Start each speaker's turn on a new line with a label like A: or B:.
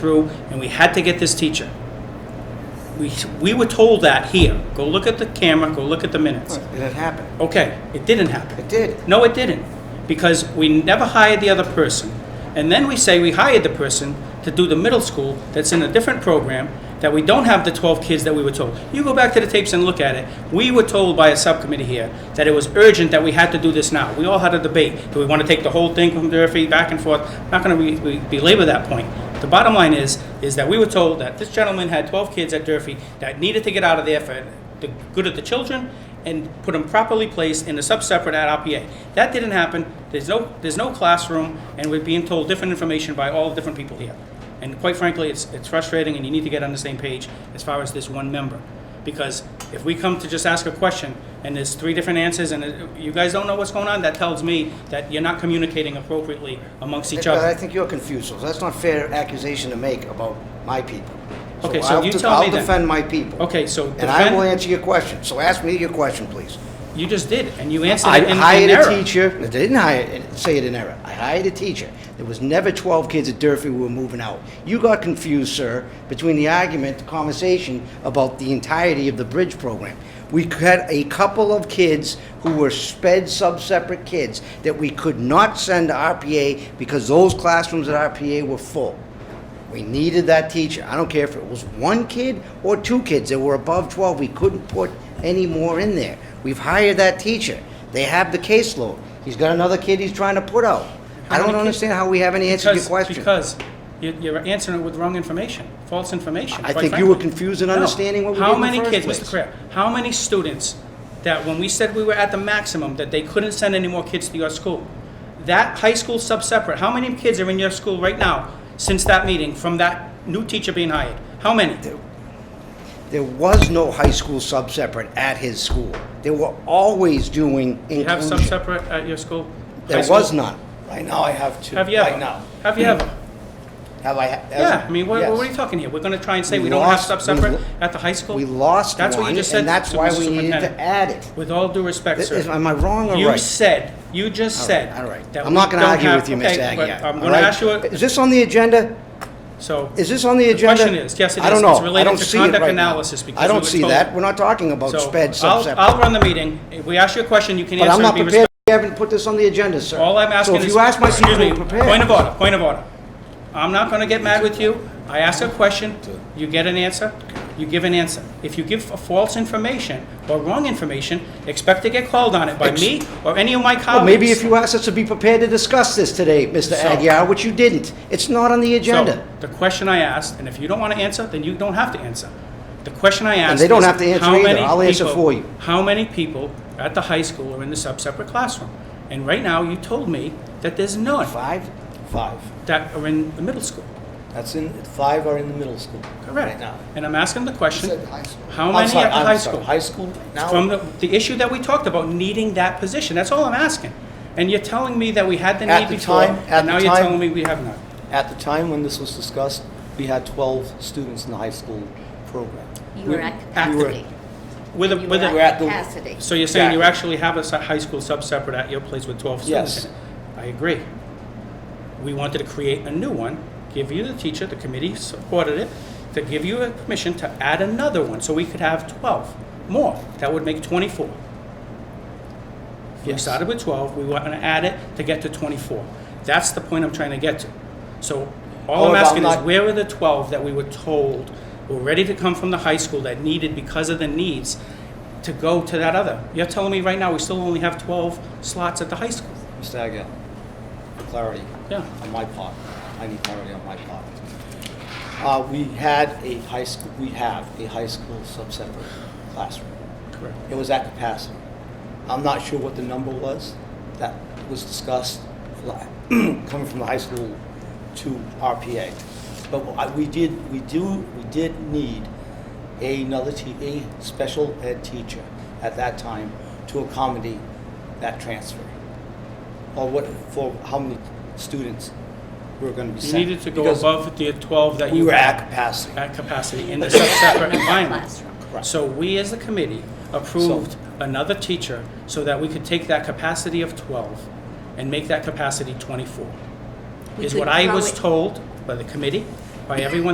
A: through, and we had to get this teacher. We, we were told that here. Go look at the camera, go look at the minutes.
B: And it happened.
A: Okay, it didn't happen.
B: It did.
A: No, it didn't, because we never hired the other person. And then we say we hired the person to do the middle school that's in a different program, that we don't have the 12 kids that we were told. You go back to the tapes and look at it. We were told by a subcommittee here that it was urgent that we had to do this now. We all had a debate. Do we want to take the whole thing from Durfee back and forth? Not going to belabor that point. The bottom line is, is that we were told that this gentleman had 12 kids at Durfee that needed to get out of there for the good of the children and put them properly placed in a sub-separate at RPA. That didn't happen. There's no, there's no classroom, and we're being told different information by all different people here. And quite frankly, it's, it's frustrating, and you need to get on the same page as far as this one member. Because if we come to just ask a question, and there's three different answers, and it- you guys don't know what's going on, that tells me that you're not communicating appropriately amongst each
B: But I
A: other.
B: think you're confused, so that's not fair accusation to make about my people.
A: Okay, so
B: I'll
A: you
B: de-
A: tell me
B: I'll
A: then.
B: defend my people.
A: Okay, so
B: And I will
A: defend-
B: answer your question, so ask me your question, please.
A: You just did, and you answered
B: I
A: it in in error.
B: hired a teacher, I didn't hire, say it in error, I hired a teacher. There was never 12 kids at Durfee who were moving out. You got confused, sir, between the argument, the conversation about the entirety of the bridge program. We had a couple of kids who were sped sub-separate kids that we could not send to RPA because those classrooms at RPA were full. We needed that teacher. I don't care if it was one kid or two kids that were above 12. We couldn't put any more in there. We've hired that teacher. They have the caseload. He's got another kid he's trying to put out. I
A: How many
B: don't
A: kids-
B: understand how we haven't answered your
A: Because,
B: question.
A: because you- you're answering it with wrong information, false information.
B: I
A: quite
B: think you were
A: frankly.
B: confused in
A: No.
B: understanding what we did
A: How
B: in the
A: many
B: first
A: kids,
B: place.
A: Mr. Crab, how many students that when we said we were at the maximum, that they couldn't send any more kids to your school? That high school sub-separate, how many kids are in your school right now since that meeting from that new teacher being hired? How many?
B: There was no high school sub-separate at his school. They were always doing
A: You have
B: inclusion.
A: sub-separate at your school? High
B: There
A: school?
B: was none.
C: Right now, I have two.
A: Have you
C: Right
A: ever?
C: now.
A: Have you ever?
C: Have I? ha-
A: Yeah, I mean, what,
C: Yes.
A: what are you talking here? We're gonna try and say
B: We
A: we don't have
B: lost- we
A: sub-separate
B: lo-
A: at the high school?
B: We lost
A: That's what
B: one,
A: you just said
B: and that's
A: to
B: why
A: Mr.
B: we needed
A: Superintendent.
B: to add it.
A: With all due respect,
B: Is-
A: sir.
B: Am I wrong or right?
A: You said, you just said.
B: All right.
A: that
B: I'm
A: we
B: not going to
A: don't
B: argue
A: have-
B: with you, Ms.
A: okay, but
B: Agia.
A: I'm
B: all
A: going to
B: right?
A: ask you, a-
B: Is this on the agenda?
A: so,
B: Is this on the
A: The
B: agenda?
A: question is, yes, it
B: I
A: is.
B: don't
A: It's
B: know. I
A: related
B: don't
A: to
B: see it
A: conduct
B: right now.
A: analysis because
B: I
A: we
B: don't
A: were
B: see
A: told.
B: that. We're not talking about
A: so
B: sped
A: I'll,
B: subsep.
A: I'll run the meeting. If we ask you a question, you can
B: But I'm
A: answer and
B: not
A: be
B: prepared.
A: respectful.
B: We haven't put this on the agenda, sir.
A: All I'm asking is.
B: So if you ask my
A: excuse
B: people
A: me,
B: to prepare.
A: Point of order, point of order. I'm not gonna get mad with you. I ask a question, you get an answer, you give an answer. If you give a false information or wrong information, expect to get called on it by me or any of my colleagues.
B: Well, maybe if you asked us to be prepared to discuss this today, Mr.
A: So-
B: Aguirre, which you didn't. It's not on the agenda.
A: So, the question I asked, and if you don't want to answer, then you don't have to answer. The question I asked
B: they don't
A: is,
B: have to answer
A: how
B: either.
A: many
B: I'll answer
A: people-
B: for you.
A: How many people at the high school are in the sub-separate classroom? And right now, you told me that there's none
B: Five?
C: Five.
A: that are in the middle school.
C: That's in, five are in the middle school. Right
A: Correct.
C: now.
A: And I'm asking the question, how
C: I'm
A: many
C: sorry,
A: at the
C: I'm
A: high
C: sorry,
A: school?
C: High school right now?
A: From the, the issue that we talked about, needing that position, that's all I'm asking. And you're telling me that we had the
C: At
A: need
C: the
A: before,
C: time- at
A: and
C: the
A: now you're
C: time-
A: telling me we have not.
C: At the time when this was discussed, we had 12 students in the high school program.
D: You were at
A: at the-
D: capacity.
A: With a,
D: You
A: with a.
D: were
C: we're at
D: at
C: the-
D: capacity.
A: So you're saying you actually
C: Exactly.
A: have a se- high school sub-separate at your place with 12 students?
C: Yes.
A: in it? I agree. We wanted to create a new one, give you the teacher, the committee supported it, to give you a permission to add another one, so we could have 12 more. That would make 24. We
C: Yes.
A: started with 12, we want to add it to get to 24. That's the point I'm trying to get to. So all I'm
C: However, I'm
A: asking is,
C: not-
A: where are the 12 that we were told were ready to come from the high school that needed, because of the needs, to go to that other? You're telling me right now, we still only have 12 slots at the high school?
C: Mr. Agia, for clarity
A: Yeah.
C: on my part, I need clarity on my part. Uh, We had a high school, we have a high school sub-separate classroom.
A: Correct.
C: It was at capacity. I'm not sure what the number was that was discussed la- coming from the high school to RPA. But I- we did, we do, we did need another, te- a special ed teacher at that time to accommodate that transfer. Or what, for how many students were going to be
A: You
C: sent.
A: needed to go
C: Because
A: above the 12 that
C: We
A: you
C: were
A: had.
C: at capacity.
A: At capacity in the separate environment.
D: Classroom.
C: Correct.
A: So we, as the committee, approved another teacher so that we could take that capacity of 12 and make that capacity 24,
D: We
A: is
D: could
A: what I
D: grow
A: was
D: it.
A: told by the committee by everyone